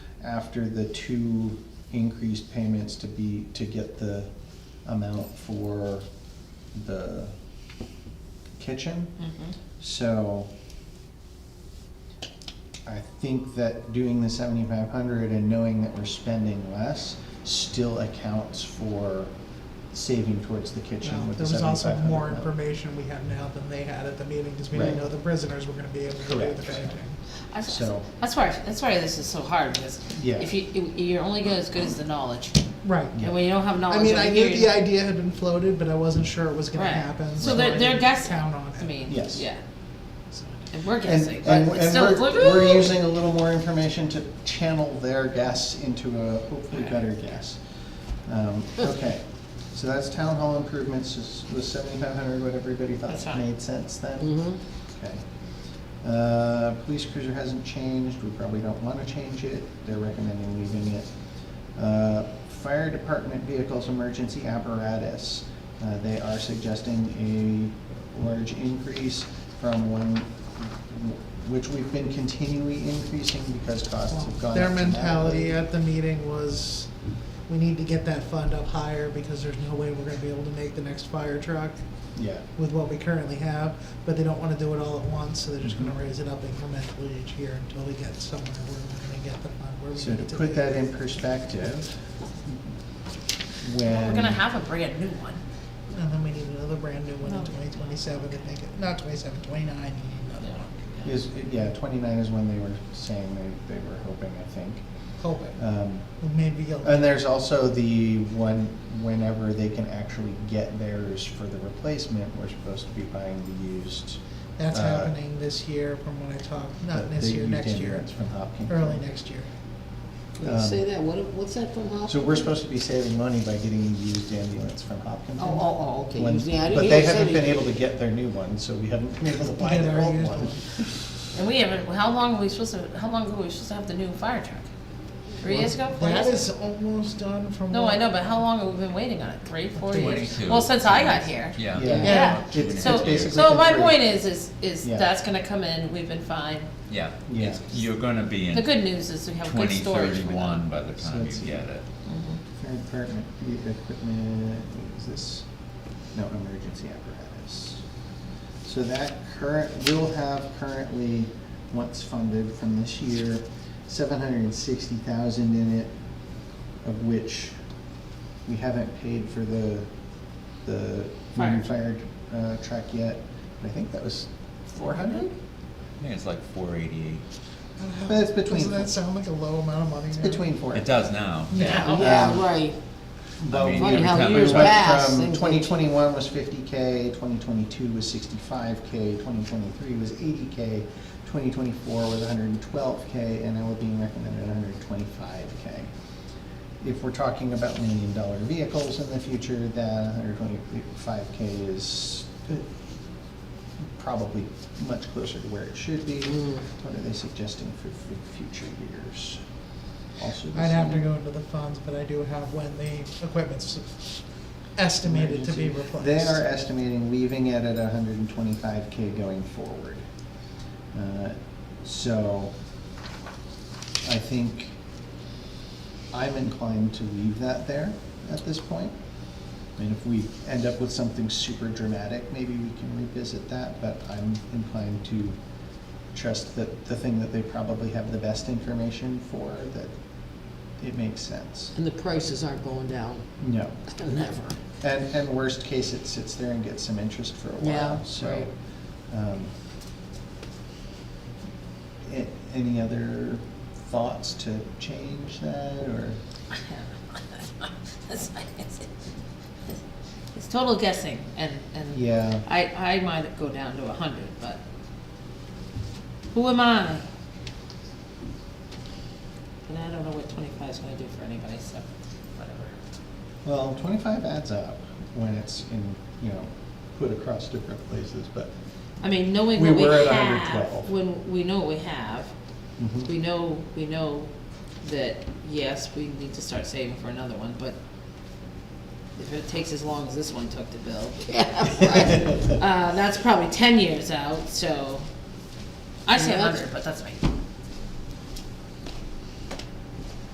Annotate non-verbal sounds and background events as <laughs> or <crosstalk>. after the two increased payments to be, to get the amount for the kitchen. Mm-hmm. So I think that doing the seventy-five hundred and knowing that we're spending less still accounts for saving towards the kitchen Well, with There the was also seventy-five hundred. more information we have now than they had at the meeting, because we didn't Right. know the prisoners were gonna be able to do the Correct. painting. That's- So- That's why, that's why this is so hard, because Yeah. if you, you- you're only good as good as the knowledge. Right. Yeah. And when you don't have knowledge. I mean, over I knew here, the idea had been floated, but I wasn't sure it was gonna Right. happen, So so I they're, they're didn't guessing, count on it. I mean, Yes. yeah, So- and we're And, guessing, but and, it's and still. we're, like, we're "Ooh." using a little more information to channel their guess into a hopefully better guess. Um, okay, so that's town hall improvements, is, was seventy-five hundred what everybody That's thought fine. made sense then? Mhm. Okay. Uh, police cruiser hasn't changed, we probably don't wanna change it, they're recommending leaving it. Uh, fire department vehicles, emergency apparatus, uh, they are suggesting a large increase from one, which we've been continually increasing because costs have gone up. Their dramatically. mentality at the meeting was, we need to get that fund up higher because there's no way we're gonna be able to make the next fire truck Yeah, with what we currently have, but they don't wanna do it all at once, so they're just Mm-hmm. gonna raise it up incrementally each year until we get somewhere where we're gonna get the fund, where we so need to it to put be. that in perspective, when. We're gonna have a brand new one. And then we need another brand new one No. in twenty twenty-seven to make it, not twenty-seven, twenty-nine, you need another one. Is, yeah, twenty-nine is when they were saying they, they were hoping, I think. Hope it, Um, maybe you'll. And there's also the one, whenever they can actually get theirs for the replacement, we're supposed to be buying the used. That's uh, happening this year from what I talked, the- not this the year, used next year, ambulance From Hopkins. early next year. When you Um, say that, what, what's that from Hopkins? So we're supposed to be saving money by getting the used ambulance from Hopkins. Oh, oh, oh, okay, When- you see, I didn't But hear they you say haven't that. been able to get their new one, so we haven't been able to buy Yeah, their they're old used one. ones. And we haven't, how long were we supposed to, how long ago were we supposed to have the new fire truck? Three years ago, four years That ago? is almost done from. No, what- I know, but how long have we been waiting on it? Three, four years? Twenty-two. Well, since I got here. Yeah. Yeah. Yeah. Two and a It's- half So, basically years. so my three. point is, is, is Yeah. that's gonna come in, we've been fine. Yeah, Yeah. it's, you're gonna be in The good news is we have good twenty storage for them. thirty-one by the So time you it's- get it. Fire department, e- equipment, what is this? No, emergency apparatus. So that current, will have currently, once funded from this year, seven hundred and sixty thousand in it, of which we haven't paid for the, the fire Fire. fired, uh, truck yet. I think that was four hundred? I think it's like four eighty-eight. But it's between- Doesn't that sound like a low amount of money? It's now? between four. It does now. Yeah. Yeah, right. But I mean, Funny every how time we years went- back- But Pass, from things twenty like- twenty-one was fifty K, twenty twenty-two was sixty-five K, twenty twenty-three was eighty K, twenty twenty-four was hundred and twelve K, and now we're being recommended hundred and twenty-five K. If we're talking about million dollar vehicles in the future, that hundred twenty-five K is uh, probably much closer to where it should be. Mm. What are they suggesting for, for future years? Also the I'd have to same. go into the funds, but I do have when the equipment's estimated to be replaced. They are estimating leaving it at hundred and twenty-five K going forward. Uh, So, I think I'm inclined to leave that there at this point. And if we end up with something super dramatic, maybe we can revisit that, but I'm inclined to trust that the thing that they probably have the best information for, that it makes sense. And the prices aren't going down, No. never. And, and worst case, it sits there and gets some interest for a Yeah, while, so. right. um, a- Any other thoughts to change that, or? It's- <laughs> It's total guessing and, and. Yeah. I, I might go down to a hundred, but who am I? And I don't know what twenty-five's gonna do for anybody, so whatever. Well, twenty-five adds up when it's in, you know, put across different places, but. I mean, knowing We what we were at have, 112. when, we know what we have, mhm. we know, we know that, yes, we need to start saving for another one, but if it takes as long as this one took to build, <laughs> Yeah, right. uh, that's probably ten years out, so I say Yeah, a that's- hundred, but that's me.